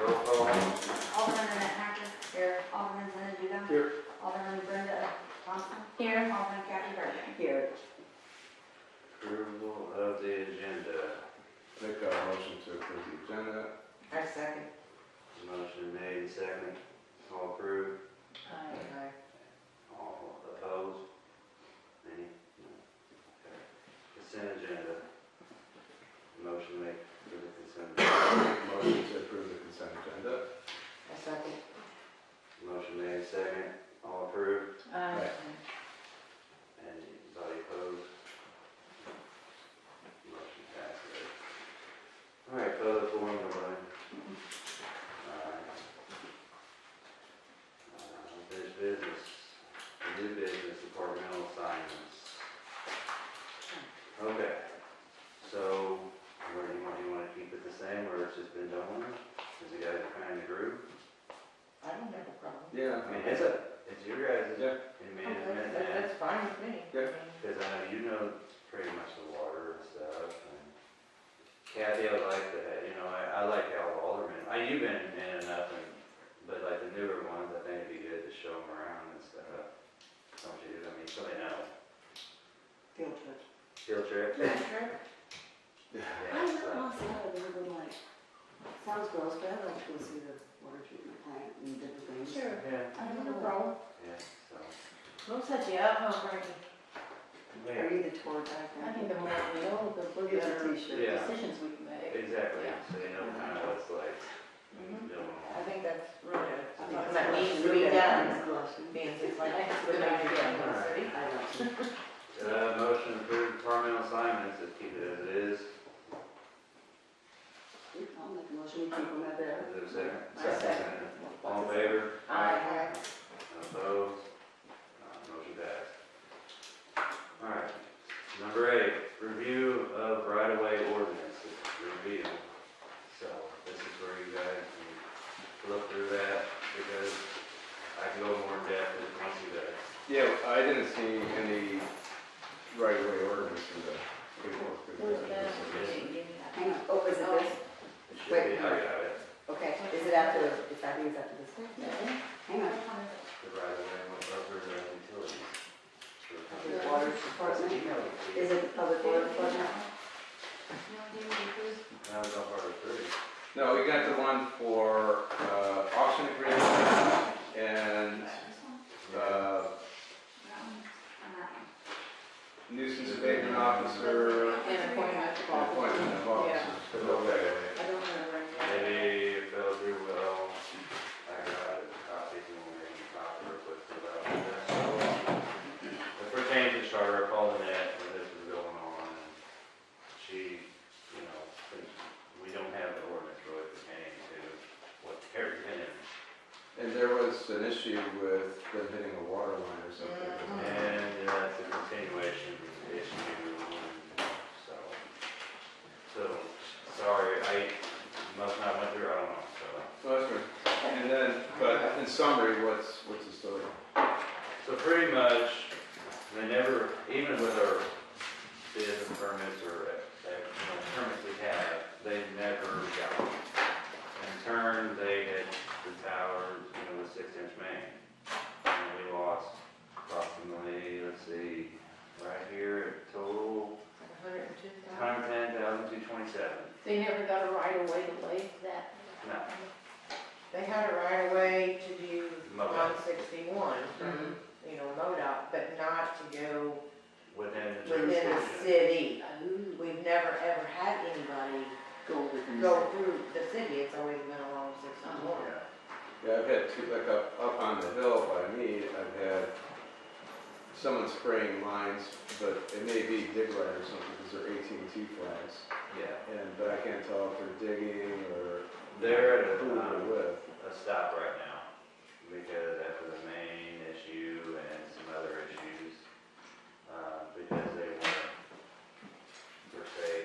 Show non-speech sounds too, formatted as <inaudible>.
Roll call. Alderman Annette Hacker. Here. Alderman Linda Duda. Here. Alderman Brenda Thompson. Here. Alderman Kathy Burman. Here. Approval of the agenda. Make a motion to approve the agenda. I second. Motion made, second. All approved, Aye. all opposed? Any? No. Okay. Consent agenda. Motion made for the consent. agenda. Motion to approve the consent agenda. I second. Motion made, second. All approved, Aye. anybody opposed? Motion passes. All right, close the forum, everybody. All right. Uh, Unfinished business, new business, departmental assignments. Okay, so, where do you want, you wanna keep it the same, or it's just been done with? Cause you guys are kind of groove. I don't have a problem. Yeah. I mean, it's a, it's your guys', Yeah. in Okay, management, that- and That's fine with me. Yeah. Because I know you know pretty much the water and stuff, and Kathy, I like that, you know, I, I like how Alderman, I, you've been in enough, and, but like the newer ones, I think it'd be good to show them around and stuff. Don't you, I mean, somebody know, Field trip. field <laughs> trip? Field trip? Yeah, I know so- most of them, but like, sounds gross, but I'd like to go see the water treatment plant and different things. Sure. Yeah, I don't have a problem. yeah, so. Looks like you have a brain. Or either tour guide. I think the more we know, the Or get a better t-shirt. Yeah. decisions we can make. Exactly, Yeah. so you know kind of what's like, Mhm. doing all. I think that's really good. I think Something it's that gross. needs to be done. Blushing. Being it's like, that's a good idea. I don't know. <laughs> Uh, motion to approve departmental assignments, let's keep it as it is, I'll make a motion, we keep them at that. is there a second? I second. All in favor? Aye. Opposed? Uh, Motion passed. All right, number eight, review of right-of-way ordinances, review. So this is where you guys can look through that, because I can go more in depth if you want to guys. Yeah, I didn't see any right away ordinance in the paperwork. Who's that? Hang on, oh, is it this? It should be, I got it, Okay, is it after, it's, I think it's after this. Hang on. the right-of-way, what's up for the utilities. The water department, is it the public water department? That was on part three. No, we got the one for uh, auction agreement and uh, nuisance abatement officer And appointment. and appointment of officers. Yeah. Okay. I don't have a brain. Maybe it fell through well. I got it, copies and we're gonna copy real quick for that. It pertains to Charter, I called Annette when this was going on, and she, you know, since we don't have the ordinance really pertaining to what they're in. And there was an issue with them hitting a water line or something. Mm-hmm. And that's a continuation issue, and so. So, sorry, I must not went through, I don't know, so. So that's right. And then, but in summary, what's, what's the story? So pretty much, they never, even with our bids and permits or, uh, you know, permits we have, they never got one. In turn, they hit the towers, you know, with six inch main. And we lost approximately, let's see, right here, total, Hundred and two thousand. hundred ten thousand two twenty-seven. So you never got a right of way to lay that? No. They had a right of way to do Mow. one sixty-one, you know, MoDOT, but not to go Within the within the jurisdiction. city. Oh, We've never ever had anybody go with them. go through the city, it's always been along sixty-one. Yeah. Yeah, I've had two, like up, up on the hill by me, I've had someone spraying lines, but it may be dig light or something, because they're AT&T flags. Yeah. And, but I can't tell if they're digging or They're at a, who um, they're with. a stop right now because after the main uh,